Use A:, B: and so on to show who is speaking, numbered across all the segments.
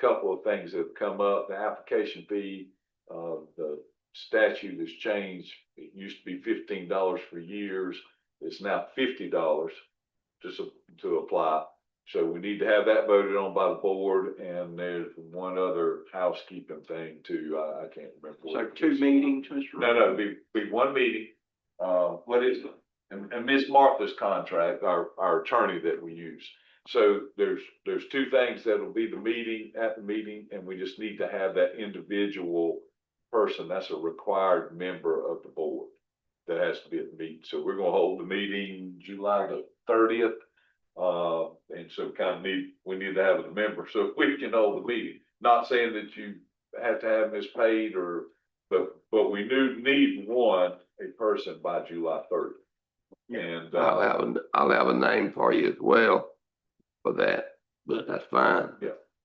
A: couple of things that have come up, the application fee, uh, the statute has changed. It used to be fifteen dollars for years, it's now fifty dollars to, su- to apply. So we need to have that voted on by the board, and there's one other housekeeping thing too, I, I can't remember. what
B: So
A: it
B: two
A: is.
B: meetings, Mr.
A: No, no, be, be one meeting, uh, what is it? And, and Ms. Martha's contract, our, our attorney that we use. So there's, there's two things that'll be the meeting, at the meeting, and we just need to have that individual person, that's a required member of the board that has to be at the meeting. So we're gonna hold the meeting July the thirtieth. Uh, and so kind of need, we need to have a member, so we can hold the meeting. Not saying that you have to have this paid or, but, but we do need one, a person by July thirtieth. And,
C: I'll
A: uh,
C: have, a will have a name for you as well for that, but that's fine.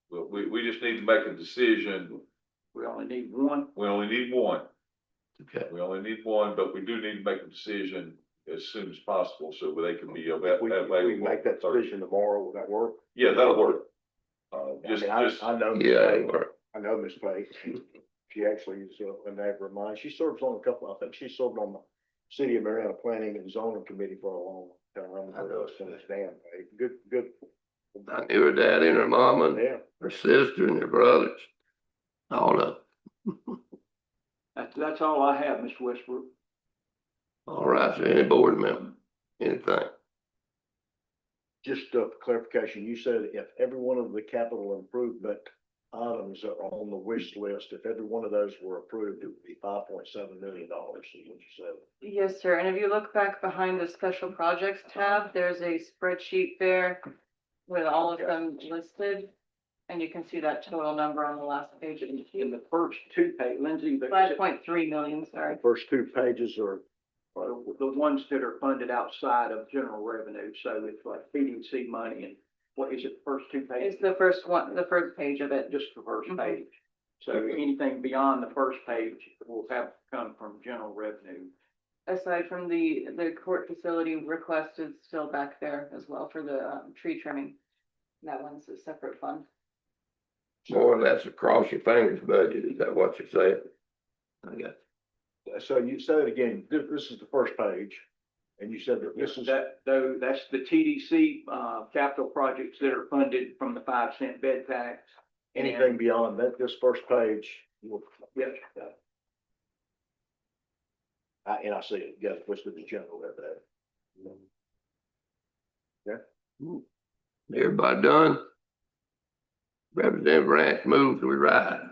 A: but we, we just need to make a decision.
B: We only need one.
A: We only need one.
C: Okay.
A: We only need one, but we do need to make a decision as soon as possible so they can be ava- available. Thursday.
D: tomorrow, will that work?
A: Yeah, that'll work. Uh, just,
D: I mean,
A: just,
D: I, I know, Miss
C: Yeah,
D: Page.
C: it worked.
D: I know Miss Page, she actually is, uh, a neighbor of mine, she serves on a couple, I think she served on the City of Marietta Planning and Zoning Committee for a long time.
C: I know.
D: Since Dan, eh, good, good,
C: I knew her dad and her mom and
D: yeah,
C: her sister and her brothers, all of,
B: That's, that's all I have, Mr. Westbrook.
C: all right, so any board member, anything.
D: just uh clarification, you said if every one of the capital improvement items that are on the wish list, if every one of those were approved, it would be five point seven million dollars, is what you said.
E: Yes, sir. And if you look back behind the special projects tab, there's a spreadsheet there with all of
D: Okay.
E: them listed. And you can see that total number on the last page of
B: In
E: the
B: the first two page, Lindsay, the,
E: five point three million, sorry.
D: The First two pages are
B: the the ones that are funded outside of general revenue, so it's like PDC money and what is it, the first two pages?
E: It's the first one, the first page of it.
B: Just the first
E: Mhm.
B: page. So anything beyond the first page will have to come from general revenue.
E: Aside from the, the court facility request is still back there as well for the um, tree trimming. That one's a separate fund.
C: More or less across your fingers budget, is that what you're saying? I got,
D: So you said it again, this, this is the first page, and you said that this is,
B: That, though, that's the TDC, uh, capital projects that are funded from the five cent bed tax. and-
D: anything beyond that, this first page, you will-
B: Yes, uh,
D: I- and I see it, yes, which is the general of that.
C: everybody done? Representative Branch moves, we ride.